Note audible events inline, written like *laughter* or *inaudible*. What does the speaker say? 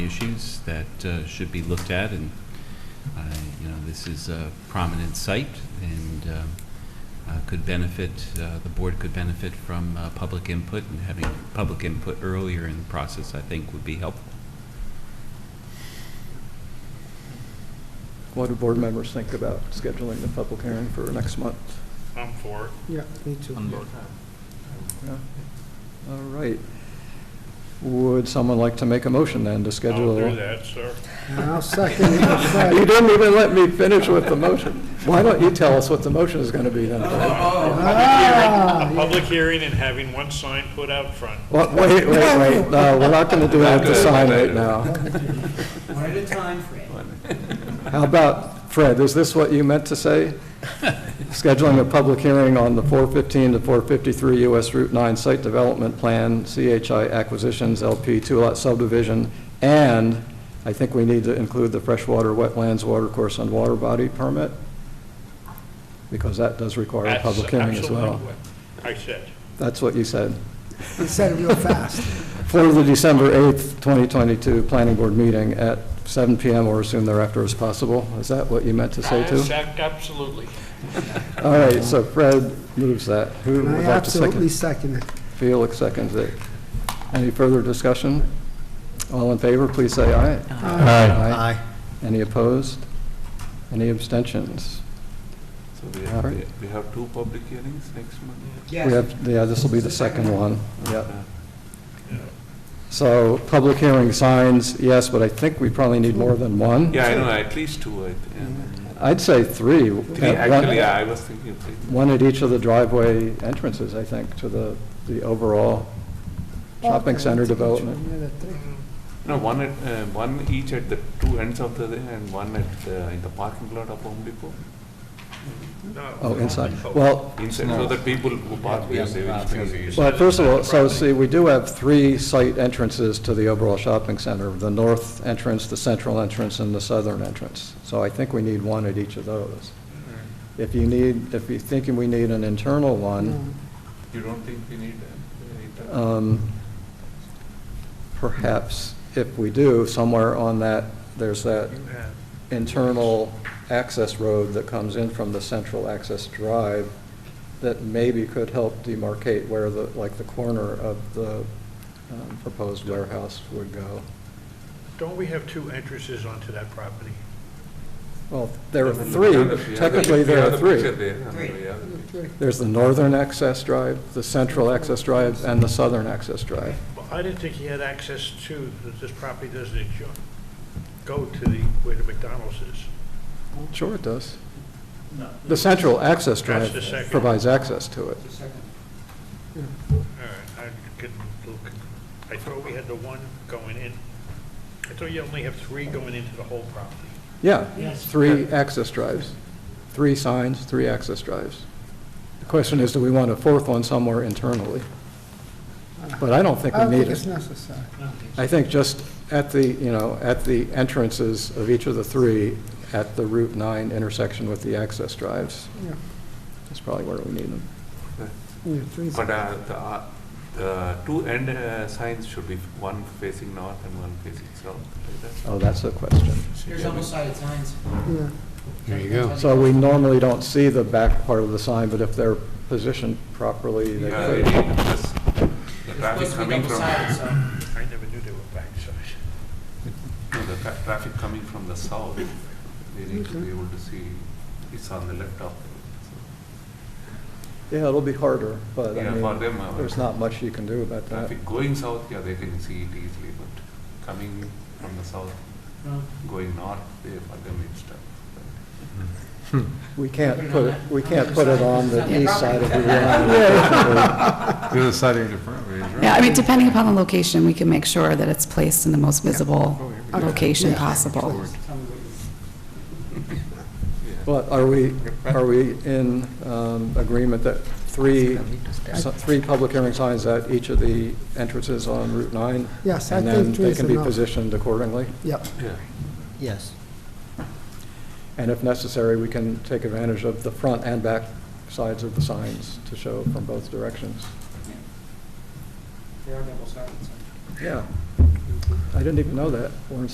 issues that uh, should be looked at, and, uh, you know, this is a prominent site and um, uh, could benefit, uh, the board could benefit from uh, public input, and having public input earlier in the process, I think, would be helpful. *laughs* What do board members think about scheduling the public hearing for next month? I'm for it. Yeah, me too. Yeah? All right. Would someone like to make a motion then to schedule? I'll do that, sir. And I'll second, *laughs* I'll You second. didn't even let me finish with the motion. Why don't you tell us what the motion is going to be Oh, then? Oh, A Ah, public hearing and having one sign put out front. Well, Wait, wait, wait, no, we're not going to do that at the sign right *laughs* now. One at a time, Fred. How about, Fred, is this what you meant to say? Scheduling a public hearing on the 415 to 453 US Route 9 Site Development Plan, CHI Acquisitions LP Two-Lot Subdivision, and I think we need to include the freshwater wetlands watercourse and water body permit, because that does require a That's public hearing as absolutely well. what I said. That's what you said. You said it real fast. For the December 8th, 2022 Planning Board meeting at 7 PM or as soon thereafter as possible. Is that what you meant to say too? Yes, ac- Absolutely. All right, so Fred moves that. Who And would I like to absolutely second? second it. Felix seconds it. Any further discussion? All in favor, please say aye. Uh, Uh, Aye. Any opposed? Any abstentions? So we have, Alright. we have two public hearings next month? We Yes, have, yeah, this will be the second one, yeah. So, public hearing signs, yes, but I think we probably need more than one. Yeah, I know, at least two, I think. I'd say three. Three, Uh, one- actually, I was thinking of three. One at each of the driveway entrances, I think, to the, the overall Oh, shopping center development. No, one at, uh, one each at the two ends of the, day and one at, uh, in the parking lot of Home Depot. No. Oh, inside. Well, Inside, so that people who park there, they will pay. Well, first of all, so see, we do have three site entrances to the overall shopping center, the north entrance, the central entrance, and the southern entrance. So I think we need one at each of those. If you need, if you're thinking we need an internal one, You don't think we need, uh, uh, um, perhaps if we do, somewhere on that, there's that Yeah. internal access road that comes in from the central access drive that maybe could help demarcate where the, like the corner of the um, proposed warehouse would go. Don't we have two entrances onto that property? Well, there are we have the- Uh, three, we have the- technically we there have are the picture three. there, uh, Three. we have the picture. There's the northern access drive, the central access drive, and the southern access drive. Well, I didn't think he had access to, that this property doesn't adjo- go to the, where the McDonald's is. Sure it does. The central access That's drive the second. provides access to it. the second. All right, I could look, I thought we had the one going in. I thought you only have three going into the whole property. Yeah, Yes. three access drives, three signs, three access drives. The question is, do we want a fourth one somewhere internally? But I don't think I we don't need think it's it. necessary. I think just at the, you know, at the entrances of each of the three, at the Route 9 intersection with the access drives, Yeah. that's probably where we need them. Yeah, three's- But uh, the, uh, the two end uh, signs should be one facing north and one facing south, like that. Oh, that's a question. There's double sided signs. yeah. There you go. So we normally don't see the back part of the sign, but if they're positioned properly, they Yeah, could. it is, because Uh, The traffic It's supposed to be coming double from, sided, so. I never knew they were backside. no, the tra- traffic coming from the south, they need to be able to see, it's on the left of them. Yeah, it'll be harder, but I Yeah, for mean, them, uh, there's not much you can do about that. Traffic going south, yeah, they can see it easily, but coming from the south, No. going north, they, for them it's tough. We can't put, it. we can't put it on the east side of the line. The other side of your front page, right? Yeah, I mean, depending upon the location, we can make sure that it's placed in the most visible location Oh, Yeah. possible. But are we, are we in um, agreement that three, so- three public hearing signs at each of the entrances on Route 9? Yes, I And then think they three's can be enough. positioned accordingly? Yep, Yeah. Yes. And if necessary, we can take advantage of the front and back sides of the signs to show from both directions. There are double sided signs. Yeah. I didn't even know that, Warren